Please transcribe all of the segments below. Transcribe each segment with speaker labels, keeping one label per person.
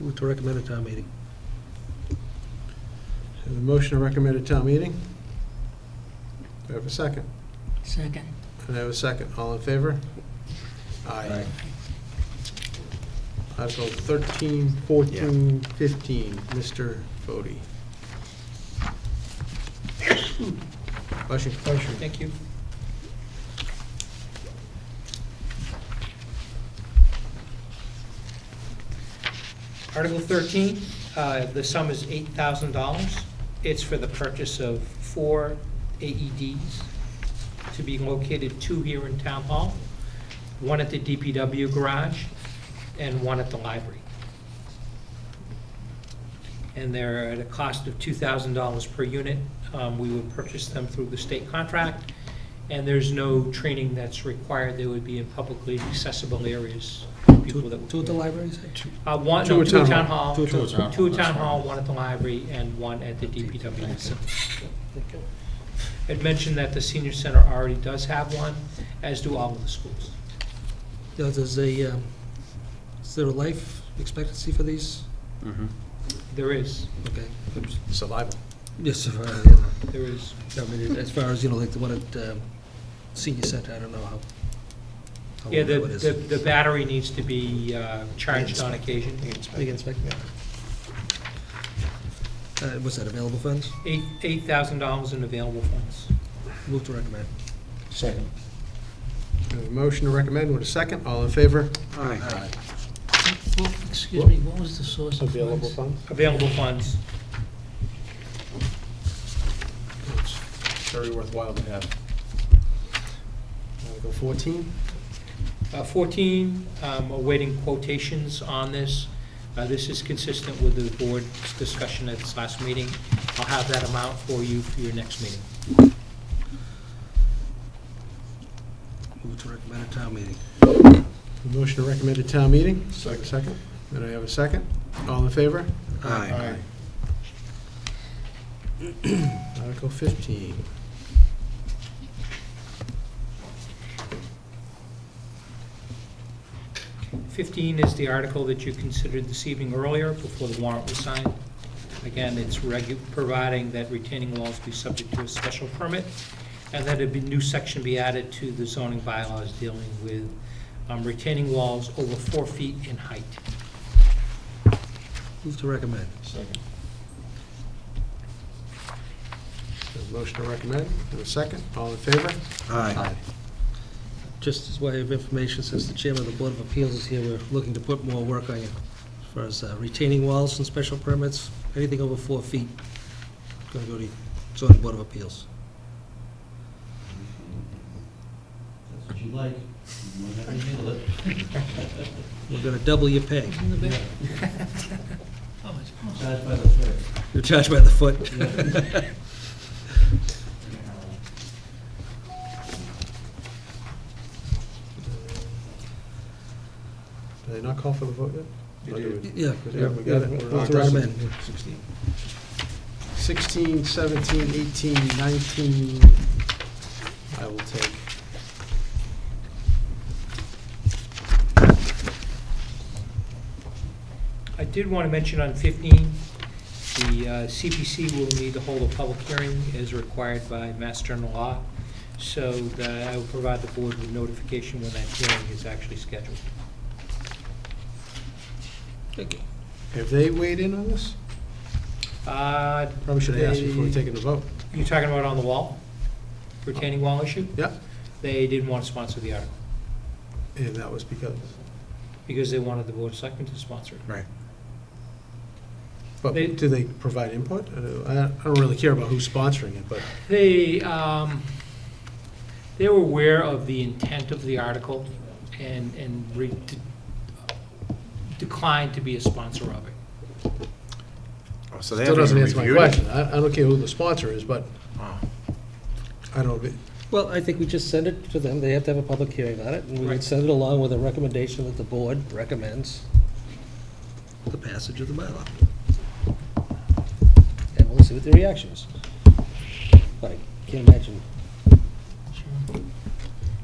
Speaker 1: Move to recommend at town meeting.
Speaker 2: Have a motion to recommend at town meeting? Do I have a second?
Speaker 3: Second.
Speaker 2: And I have a second. All in favor? Aye. Article 13, 14, 15, Mr. Fode. Motion.
Speaker 4: Thank you. Article 13, uh, the sum is $8,000. It's for the purchase of four AEDs to be located, two here in Town Hall, one at the DPW garage, and one at the library. And they're at a cost of $2,000 per unit. Um, We would purchase them through the state contract, and there's no training that's required. They would be in publicly accessible areas. people that would-
Speaker 1: Two at the library, say?
Speaker 4: uh, One,
Speaker 2: Two
Speaker 4: no,
Speaker 2: at
Speaker 4: two at Town
Speaker 2: town hall.
Speaker 4: Hall,
Speaker 2: Two
Speaker 4: two
Speaker 2: at town hall.
Speaker 4: at Town Hall, one at the library, and one at the DPW. facility. I'd mentioned that the senior center already does have one, as do all of the schools.
Speaker 1: Now, Does a, um, is there a life expectancy for these?
Speaker 4: There is,
Speaker 1: Okay.
Speaker 2: Survival.
Speaker 1: Yes, if, uh, you know,
Speaker 4: there is.
Speaker 1: I mean, as far as, you know, like the one at um, senior center, I don't know how. how
Speaker 4: Yeah, the,
Speaker 1: old it is.
Speaker 4: the the battery needs to be uh, charged on occasion.
Speaker 1: They can inspect it. Uh, Was that available funds?
Speaker 4: Eight, eight thousand dollars in available funds.
Speaker 1: Move to recommend.
Speaker 5: Second.
Speaker 2: I have a motion to recommend with a second. All in favor?
Speaker 5: Aye.
Speaker 3: Well, Excuse me, what was the source of funds?
Speaker 2: funds?
Speaker 4: Available funds.
Speaker 2: It's Very worthwhile to have. Article 14,
Speaker 4: Uh, 14, um, awaiting quotations on this. Uh, This is consistent with the board's discussion at this last meeting. I'll have that amount for you for your next meeting.
Speaker 1: Move to recommend at town meeting.
Speaker 2: a motion to recommend at town meeting? Second. Second. Then I have a second. All in favor?
Speaker 5: Aye.
Speaker 2: Article 15.
Speaker 4: Fifteen is the article that you considered this evening earlier, before the warrant was signed. Again, it's regu, providing that retaining walls be subject to a special permit, and that a be- new section be added to the zoning bylaws dealing with um, retaining walls over four feet in height.
Speaker 1: Move to recommend.
Speaker 5: Second.
Speaker 2: There's a motion to recommend, and a second. All in favor?
Speaker 5: Aye.
Speaker 1: Just as way of information, since the chairman of the Board of Appeals is here, we're looking to put more work on you as far as uh, retaining walls and special permits, anything over four feet, going to go to zoning Board of Appeals.
Speaker 6: That's what you like. You might have to handle it.
Speaker 1: We're going to double your pay.
Speaker 3: In the back? Oh, How much?
Speaker 6: Judge by the third.
Speaker 1: You're charged by the foot.
Speaker 2: Did they not call for the vote yet?
Speaker 1: Yeah.
Speaker 2: Yeah, we got it. We're
Speaker 1: Move
Speaker 2: on
Speaker 1: to recommend.
Speaker 2: 16, 17, 18, 19, I will take.
Speaker 4: I did want to mention on 15, the uh, CPC will need to hold a public hearing as required by Mass General Law, so that I will provide the board with notification when that hearing is actually scheduled.
Speaker 2: Have they weighed in on this?
Speaker 4: Uh,
Speaker 2: Probably should have asked before we taken the vote.
Speaker 4: You're talking about on the wall, retaining wall issue?
Speaker 2: Yeah,
Speaker 4: They didn't want to sponsor the article,
Speaker 2: and that was because,
Speaker 4: because they wanted the board of selectmen to sponsor it.
Speaker 2: but
Speaker 4: They-
Speaker 2: do they provide input? I don't- I don't really care about who's sponsoring it, but
Speaker 4: They, um, they were aware of the intent of the article and, and re- de- declined to be a sponsor of it.
Speaker 5: Oh, So they
Speaker 2: still doesn't
Speaker 5: haven't even
Speaker 2: answer my
Speaker 5: reviewed it?
Speaker 2: question. I I don't care who the sponsor is, but I don't,
Speaker 1: Well, I think we just send it to them, they have to have a public hearing on it, and we can
Speaker 4: Right.
Speaker 1: send it along with a recommendation that the board recommends the passage of the bylaw. And we'll see what the reaction is. But I can't imagine,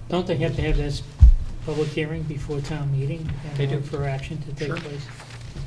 Speaker 7: Don't they have to have this public hearing before town meeting? in
Speaker 4: They do.
Speaker 7: order For action to take
Speaker 4: Sure.
Speaker 7: place?